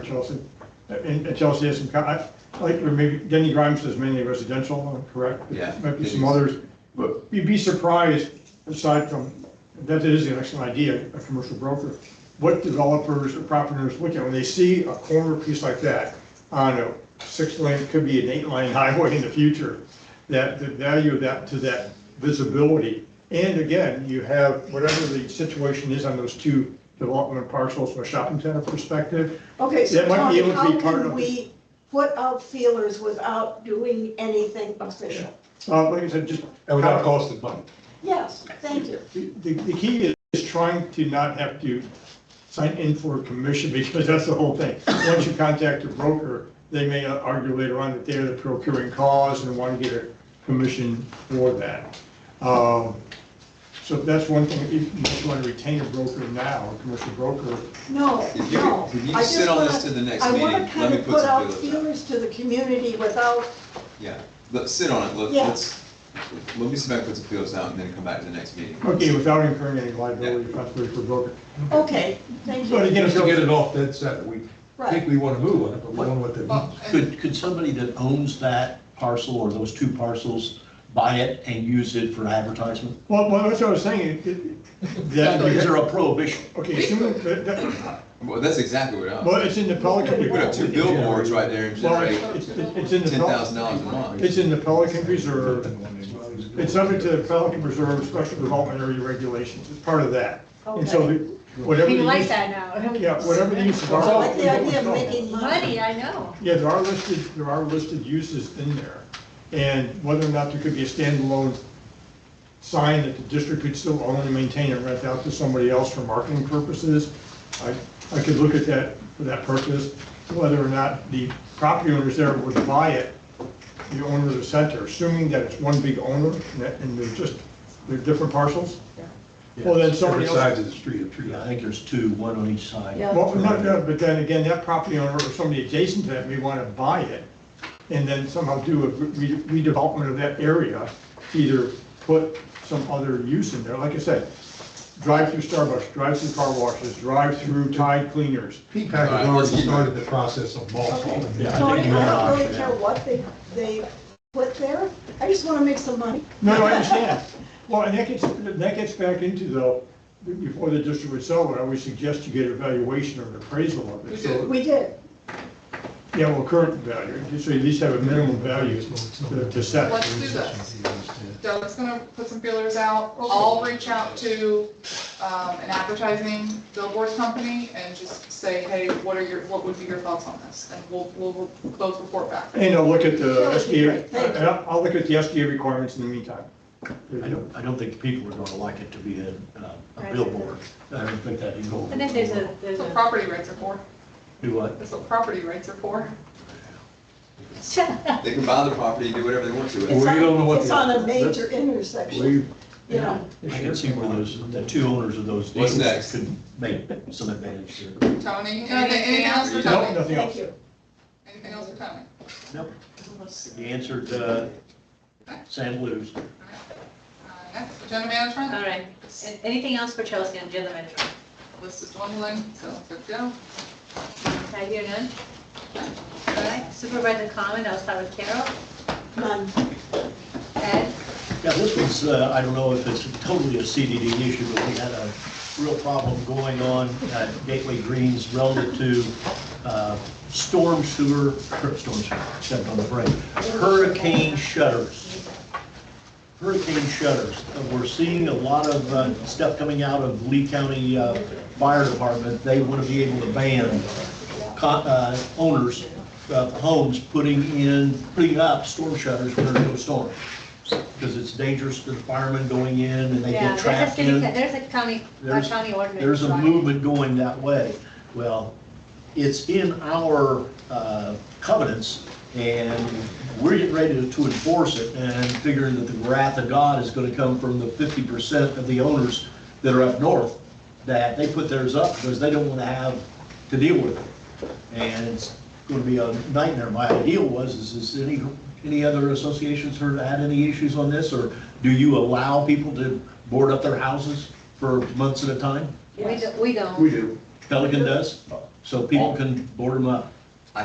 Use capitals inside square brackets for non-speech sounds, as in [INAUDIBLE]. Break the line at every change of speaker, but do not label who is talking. Chelsea. And and Chelsea has some, co- I, like, or maybe, Denny Grimes does mainly residential, correct?
Yeah.
Might be some others, but you'd be surprised, aside from, that is an excellent idea, a commercial broker, what developers or property owners look at when they see a corner piece like that on a six-lane, could be an eight-lane [LAUGHS] highway in the future, that the value of that to that visibility. And again, you have whatever the situation is on those two development parcels from a shopping center perspective.
Okay, so
That might be
Tony,
able to be
how
part of
can
it.
we put out feelers without doing anything official?
Uh, like I said, just.
And without costing money.
Yes, thank you.
The, the key is- is trying to not have to sign in for a commission, [LAUGHS] because that's the whole thing. Once you contact a broker, they may argue later on that they're the procuring cause and want to get a commission for that. Um, So that's one thing, if you just want to retain a broker now, a commercial broker,
No,
If you-
no.
if you
I just
sit on this
wanna-
to the next
I
meeting,
wanna
let
kind
me
of
put
put
some
out
feelers out.
feelers to the community without,
Yeah, let's sit on it, let-
Yeah.
let's, let me see if I can put some feelers out and then come back to the next meeting.
okay, without incurring any liability responsibility for broker.
okay, thank
But
you.
again,
Just
if
to get
you're-
it off dead center. We think
Right,
we want to move on it, but we don't know what that means.
Could, could somebody that owns that parcel or those two parcels buy it and use it for advertisement?
well, well, that's what I was saying. it- it- that-
Is there a prohibition?
Okay, assuming, that- that-
Well, that's exactly what I,
well, it's in the Pelican.
we put up two billboards right there and
Well,
generate
it's, it's- it's in the.
ten
Pel-
thousand dollars a month.
It's in the Pelican Reserve. It's subject to the Pelican Reserve Special Development Area Regulations. It's part of that. And so
okay.
the- whatever.
We
the
like
use-
that now.
Yeah, whatever
[LAUGHS]
the use of
I
our.
like the idea of making money.
Money, I know.
Yeah, there are listed, there are listed uses in there. And whether or not there could be a standalone sign that the district could still own and maintain and rent out to somebody else for marketing purposes, I, I could look at that for that purpose. Whether or not the property owners there would buy it, the owner of the center, assuming that it's one big owner and that- and they're just, they're different parcels. Well, then somebody
Different
else.
sides of the street, I'm
Yeah, I
sure.
think there's two, one on each side.
Yeah.
Well, no, no, but then again, that property owner or somebody adjacent to that may want to buy it and then somehow do a re- redevelopment of that area, either put some other use in there. Like I said, drive-through Starbucks, drive-through car washes, drive-rough Tide cleaners.
P-PAC has already started the process of mall calling.
Yeah, I
Tony,
think
I
we're
don't
on
really
for
care
now.
what they, they put there. I just wanna make some money.
No, no, I understand. Well, and that gets, that gets back into though, before the district would sell it, I would suggest you get a valuation or an appraisal of it. So,
We did.
Yeah, well, current value, so you at least have a minimum value to to set.
Let's do this. Doug's gonna put some feelers out. I'll reach out to, um, an advertising billboard company and just say, hey, what are your, what would be your thoughts on this? And we'll, we'll both report back.
And I'll look at the
That would be great,
SDA,
thank you.
and I'll I'll look at the SDA requirements in the meantime.
I don't, I don't think people are gonna like it to be a, uh, a
Right.
billboard. I don't think that'd go. over
And then there's
the
a,
world.
there's
That's what
a,
property rights are for.
Do what?
That's what property rights are for.
They can buy the property, do whatever they want to with it.
It's
We
on-
don't know what
It's
the-
on a major intersection,
We,
you know.
I can see where those, the two owners of those
What's
deals
next?
could make some advantage there.
Tony,
Tony, anything, anything else for
anything
No,
Tony?
nothing
Thank
else.
you.
Anything else for Tony?
No, you answered, uh, San Luis.
All right, Uh, Next,
[LAUGHS]
agenda
all
management.
right. And Anything else for Chelsea on agenda management?
List is dwindling, so good to go.
I hear none. All right, supervisor comment, I'll start with Carol.
None.
Ed?
Yeah, this was, uh, I don't know if it's totally a CDD issue, but we had a real problem going on at Gateway Greens relative to uh, storm sewer, er, storm sewer, except on the break, hurricane shutters. Hurricane shutters. Uh, We're seeing a lot of uh, stuff coming out of Lee County uh, Fire Department. They want to be able to ban co- uh, owners of homes putting in, putting up storm shutters when there's no storm because it's dangerous to the firemen going in and they
Yeah,
get
there's a
trapped
city-
in.
There's a county, a
There's-
county ordinance.
There's a
right.
movement going that way. Well, it's in our uh, covenants, and we're getting ready to to enforce it, and figuring that the wrath of God is gonna come from the fifty percent of the owners that are up north, that they put theirs up because they don't wanna have to deal with it. And it's gonna be a nightmare. My ideal was, is, is any, any other associations heard, had any issues on this, or do you allow people to board up their houses for months at a time?
We don't, we don't.
do.
Pelican does? so people can board them up.